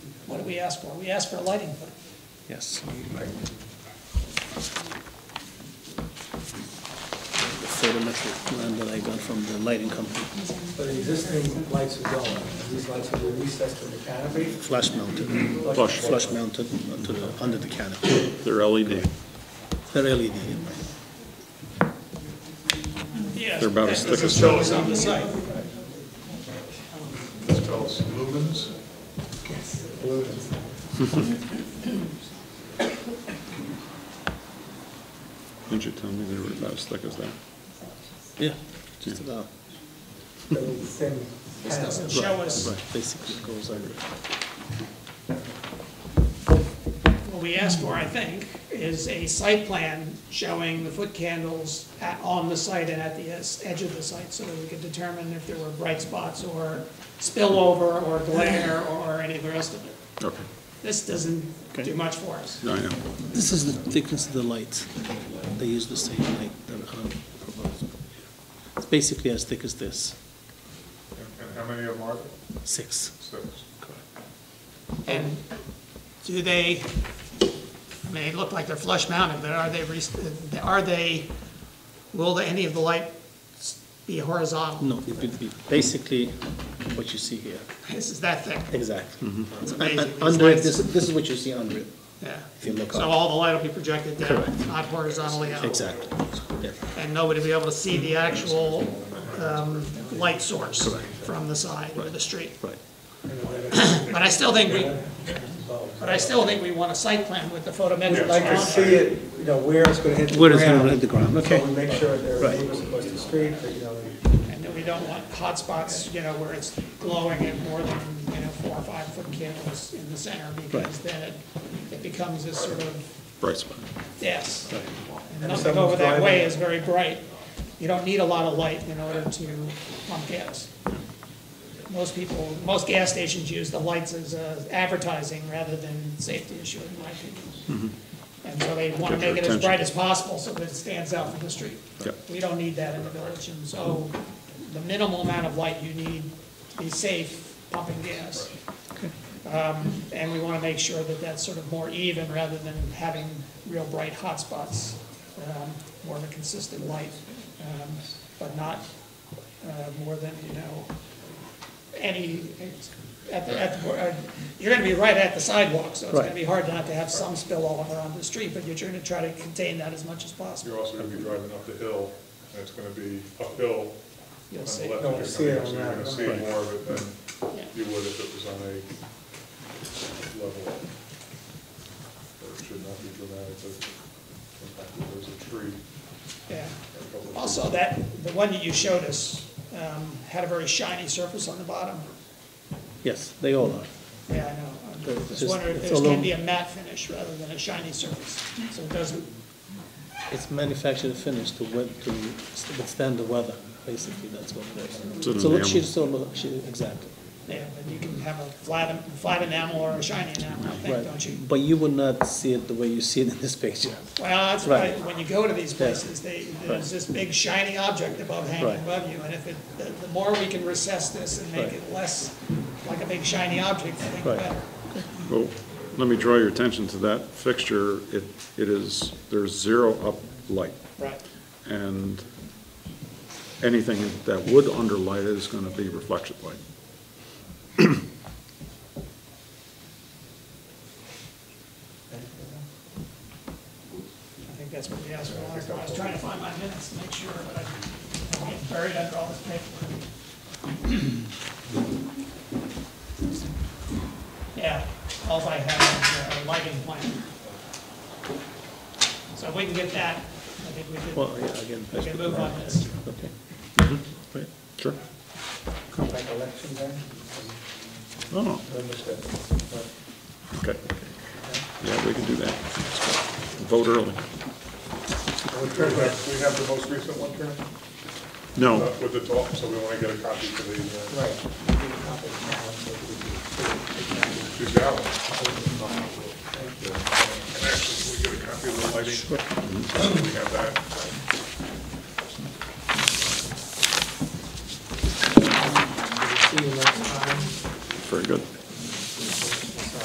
What do we ask for? We ask for a lighting plan. Yes. The photometric plan that I got from the lighting company, But the existing lights are going, these lights will be recessed to the canopy. flash mounted, E Flush. flash mounted onto the, under the canopy. They're LED. They're E LED, in my- Yes. They're about as that doesn't thick as show us on the site. It's called lumens. Didn't you tell me they were about as thick as that? yeah, just about, They're the same This panel. doesn't show us, right, basically it goes under. what we ask for, I think, is a site plan showing the foot candles at, on the site and at the es- edge of the site, so that we could determine if there were bright spots or spillover or glare or any of the rest of it. Okay, This doesn't Okay. do much for us. no, I know. This is the thickness of the light, they use the same light that I proposed. It's basically as thick as this, And and how many of them are there? six. Six. And do they, I mean, they look like they're flush mounted, but are they, re- are they, will any of the light be horizontal? No, it would be basically what you see here. Mm-hmm. This is that thick, Exactly. It's And- amazing. and These Under it, lights- this, this is what you see under it, yeah. if you look So up. all the light will be projected down, Correct. not horizontally out. Exactly, yeah, And nobody will be able to see the actual um, light source from the side or the street. right. But I still think we, but I still think we want a site plan with the photometric We'd like to see on it. it, you know, where it's gonna hit the Where ground. it's gonna hit the ground, okay. So we make sure there are Right. neighbors across the street, that, you know, And that we don't want hot spots, you know, where it's glowing at more than, you know, four or five foot candles in the center because Right. then it- it becomes this sort of Bright spot. Yes. And And if nothing over someone's that way driving- is very bright. You don't need a lot of light in order to pump gas. Most people, most gas stations use the lights as uh, advertising rather than safety issue, in my opinion. And so they want to Get their make it as attention. bright as possible so that it stands out from the street. Yep. We don't need that in the village, and so the minimal amount of light you need to be safe pumping gas. And we want to make sure that that's sort of more even rather than having real bright hotspots, um, more of a consistent light, um, but not uh, more than, you know, any, at the, at the, uh, you're going to be right at the sidewalk, so it's going to Right. be hard not to have some spill all around the street, but you're trying to try to contain that as much as possible. You're also gonna be driving up the hill, and it's gonna be uphill on You'll the see. left. No, if see you're it on coming, So you're that, gonna see right. more of it Yeah. than you would if it was on a level. Or it should not be dramatic, but in fact, if there's a tree, Yeah. a couple of trees. Also, that, the one that you showed us um, had a very shiny surface on the bottom. Yes, they all are. Yeah, I know. I'm It's just just- wondering if it's this a can little- be a matte finish rather than a shiny surface, so it doesn't, It's manufactured and finished to wet, to withstand the weather, basically, that's what it is. It's an So look, enamel. she's, so, she, exactly, yeah, but you can have a flat, flat enamel or a shiny enamel, I think, right. don't you? But you would not see it the way you see it in this picture. Well, that's Right. why, when you go to these places, they, Right. there's this big shiny object above hanging Right. above you, and if it, the, the more we can recess this and make Right. it less like a big shiny object, I think the Right. better. Well, let me draw your attention to that fixture. It, it is, there's zero up light. Right. And anything that would underlight it is gonna be reflection light. I think that's what we asked for. last time. I was trying to find my minutes to make sure, but I get buried under all this paperwork. Yeah, all I have is uh, a lighting plan. So if we can get that, I think we could, Well, yeah, again. we could move on this. Okay. Right. Sure. come back election day. Oh, okay. Yeah, we can do that. Vote early. Turn back, we have the most recent one, turn? No, Uh, With the top, so we wanna get a copy for the, uh, Right. We need a copy now, so we can- she's got one. And actually, can we get a copy of the lighting? We have that. See you next time. very good.